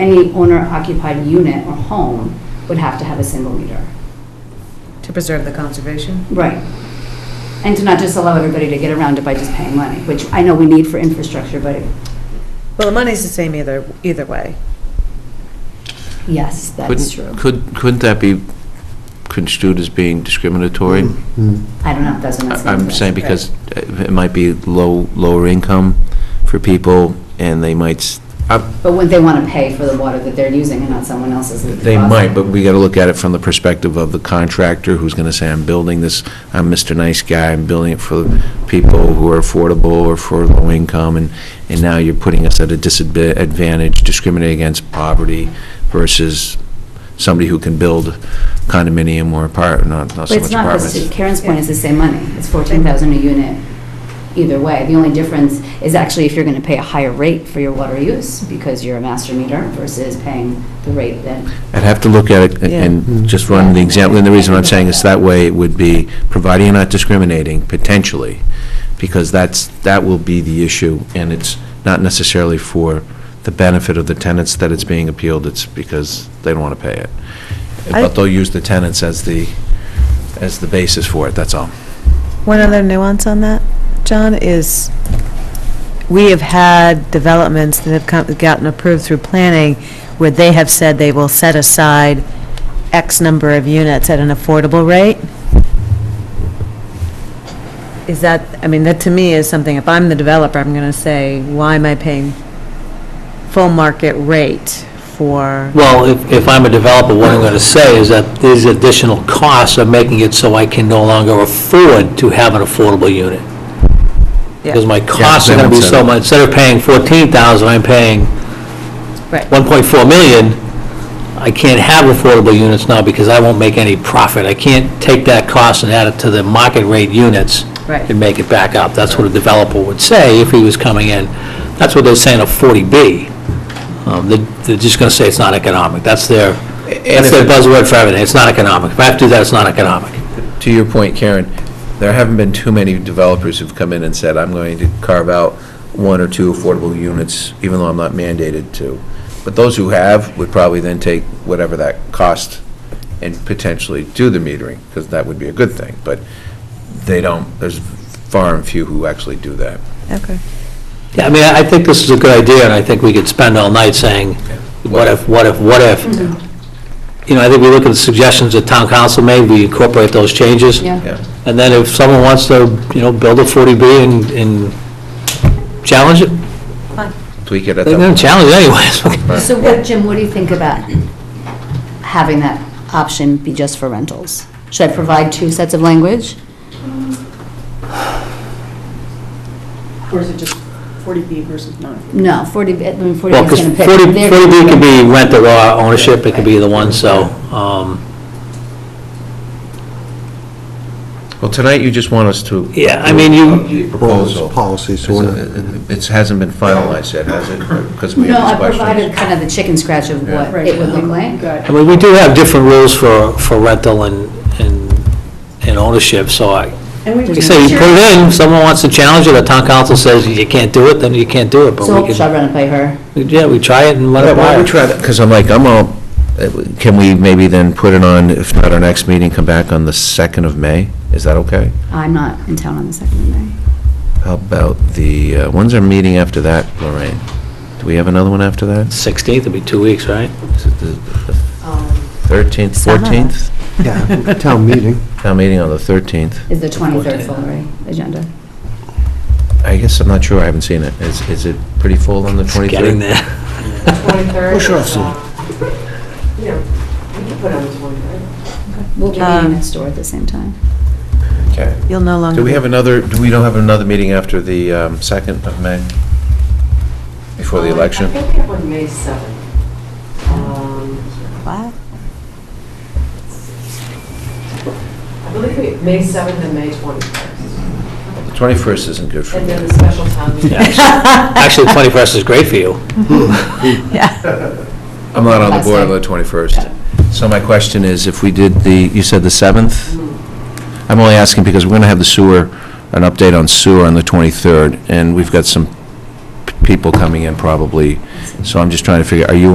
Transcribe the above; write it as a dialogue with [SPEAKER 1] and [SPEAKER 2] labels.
[SPEAKER 1] any owner-occupied unit or home would have to have a single meter.
[SPEAKER 2] To preserve the conservation?
[SPEAKER 1] Right. And to not just allow everybody to get around it by just paying money, which I know we need for infrastructure, but
[SPEAKER 2] Well, the money's the same either, either way.
[SPEAKER 1] yes, that's true.
[SPEAKER 3] Couldn't, could- couldn't that be construed as being discriminatory?
[SPEAKER 4] Mm-hmm.
[SPEAKER 1] I don't know, if Mm. that's what
[SPEAKER 3] I- I'm
[SPEAKER 1] I'm
[SPEAKER 3] saying because it might be low, lower income for people, and they might, s- I-
[SPEAKER 1] But wouldn't they want to pay for the water that they're using and not someone else's? at the
[SPEAKER 3] they
[SPEAKER 1] cost?
[SPEAKER 3] might, but we got to look at it from the perspective of the contractor who's going to say, I'm building this, I'm Mr. Nice Guy, I'm building it for people who are affordable or for low income, and, and now you're putting us at a disadvantage, discriminating against poverty versus somebody who can build condominium or apart, not, not
[SPEAKER 1] But
[SPEAKER 3] so much
[SPEAKER 1] it's not,
[SPEAKER 3] apartments.
[SPEAKER 1] the- Karen's point is the same money. It's 14,000 a unit either way. The only difference is actually if you're going to pay a higher rate for your water use because you're a master meter versus paying the rate that,
[SPEAKER 3] I'd have to look at it and- and just run the example, and the reason I'm saying is that way it would be, providing you're not discriminating, potentially, because that's, that will be the issue, and it's not necessarily for the benefit of the tenants that it's being appealed, it's because they don't want to pay it.
[SPEAKER 2] I-
[SPEAKER 3] But they'll use the tenants as the, as the basis for it, that's all.
[SPEAKER 2] One other nuance on that, John, is we have had developments that have come, gotten approved through planning where they have said they will set aside X number of units at an affordable rate. Is that, I mean, that to me is something, if I'm the developer, I'm going to say, why am I paying full market rate for,
[SPEAKER 4] Well, if, if I'm a developer, what I'm going to say is that these additional costs are making it so I can no longer afford to have an affordable unit.
[SPEAKER 2] Yeah.
[SPEAKER 4] Because my costs are
[SPEAKER 3] same
[SPEAKER 4] going to be so
[SPEAKER 3] incentive.
[SPEAKER 4] much, instead of paying 14,000, I'm paying
[SPEAKER 2] right?
[SPEAKER 4] 1.4 million. I can't have affordable units now because I won't make any profit. I can't take that cost and add it to the market rate units.
[SPEAKER 2] Right.
[SPEAKER 4] And make it back up. That's what a developer would say if he was coming in. That's what they're saying of 40B. Um, they- They're just going to say it's not economic. That's their, that's
[SPEAKER 3] if
[SPEAKER 4] their
[SPEAKER 3] it-
[SPEAKER 4] buzzword for everything. It's not economic. If I have to do that, it's not economic.
[SPEAKER 3] to your point, Karen, there haven't been too many developers who've come in and said, I'm going to carve out one or two affordable units, even though I'm not mandated to. But those who have would probably then take whatever that cost and potentially do the metering, because that would be a good thing. But they don't, there's far and few who actually do that.
[SPEAKER 2] Okay.
[SPEAKER 4] Yeah, I mean, I I think this is a good idea, and I think we could spend all night saying, what if, what if, what if? You know, I think we look at the suggestions that town council made, we incorporate those changes.
[SPEAKER 1] yeah.
[SPEAKER 3] Yeah.
[SPEAKER 4] And then if someone wants to, you know, build a 40B and, and challenge it,
[SPEAKER 3] Tweak it at
[SPEAKER 4] they're going
[SPEAKER 3] that.
[SPEAKER 4] to challenge it anyways.
[SPEAKER 1] So what, Jim, what do you think about having that option be just for rentals? Should I provide two sets of language?
[SPEAKER 5] Or is it just 40B versus non?
[SPEAKER 1] No, 40, I mean, 40
[SPEAKER 4] Well,
[SPEAKER 1] is
[SPEAKER 4] because
[SPEAKER 1] going to pick.
[SPEAKER 4] 40,
[SPEAKER 1] They're-
[SPEAKER 4] 40B could be rental or ownership, it could be either one, so, um,
[SPEAKER 3] Well, tonight you just want us to.
[SPEAKER 4] Yeah, I mean, you-
[SPEAKER 3] The Proposal.
[SPEAKER 6] Policy, so we're not-
[SPEAKER 3] It's- uh, It hasn't been finalized yet, has it? Because we
[SPEAKER 1] No,
[SPEAKER 3] have
[SPEAKER 1] I
[SPEAKER 3] these questions.
[SPEAKER 1] provided kind of the chicken scratch of
[SPEAKER 3] Yeah.
[SPEAKER 1] what it would look like.
[SPEAKER 5] Got
[SPEAKER 4] I mean, we do have different rules for, for rental and, and and ownership, so I,
[SPEAKER 5] And we
[SPEAKER 4] Like I say, you put it in, if someone wants to challenge it, the town council says you can't do it, then you can't do it, but
[SPEAKER 1] So
[SPEAKER 4] we
[SPEAKER 1] should I
[SPEAKER 4] can,
[SPEAKER 1] run it by her?
[SPEAKER 4] yeah, we try it and let
[SPEAKER 3] Yeah,
[SPEAKER 4] it
[SPEAKER 3] why don't we
[SPEAKER 4] fly.
[SPEAKER 3] try that, because I'm like, I'm all, eh, can we maybe then put it on, if not our next meeting, come back on the 2nd of May? Is that okay?
[SPEAKER 1] I'm not in town on the second of May.
[SPEAKER 3] How about the, uh, when's our meeting after that, Lorraine? Do we have another one after that?
[SPEAKER 4] 16th would be two weeks, right?
[SPEAKER 3] Is it the the
[SPEAKER 7] Um,
[SPEAKER 3] 13th,
[SPEAKER 2] Some of
[SPEAKER 3] 14th?
[SPEAKER 6] Yeah, town meeting.
[SPEAKER 3] Town meeting on the 13th.
[SPEAKER 1] Is the 23rd full, right, agenda?
[SPEAKER 3] I guess, I'm not sure, I haven't seen it. Is, is it pretty full on the 23rd?
[SPEAKER 4] Getting there.
[SPEAKER 7] 23rd.
[SPEAKER 6] Push off some.
[SPEAKER 7] uh, You know, we can put on the 23rd.
[SPEAKER 1] We'll be
[SPEAKER 2] Um,
[SPEAKER 1] meeting next door at the same time.
[SPEAKER 3] Okay.
[SPEAKER 2] You'll no longer.
[SPEAKER 3] Do we
[SPEAKER 2] be-
[SPEAKER 3] have another, do we don't have another meeting after the um, 2nd of May? Before the
[SPEAKER 7] Um,
[SPEAKER 3] election?
[SPEAKER 7] I think we have one May 7th. Um,
[SPEAKER 2] What?
[SPEAKER 7] I believe we, May 7th and May 21st.
[SPEAKER 3] The 21st isn't good for me.
[SPEAKER 7] And then the special town meeting.
[SPEAKER 4] Actually, the 21st is great for you.
[SPEAKER 2] Yeah.
[SPEAKER 3] I'm not on the
[SPEAKER 1] Last
[SPEAKER 3] board on
[SPEAKER 1] day.
[SPEAKER 3] the 21st. So my question is, if we did the, you said the 7th? I'm only asking because we're going to have the sewer, an update on sewer on the 23rd, and we've got some p- people coming in probably, so I'm just trying to figure, are you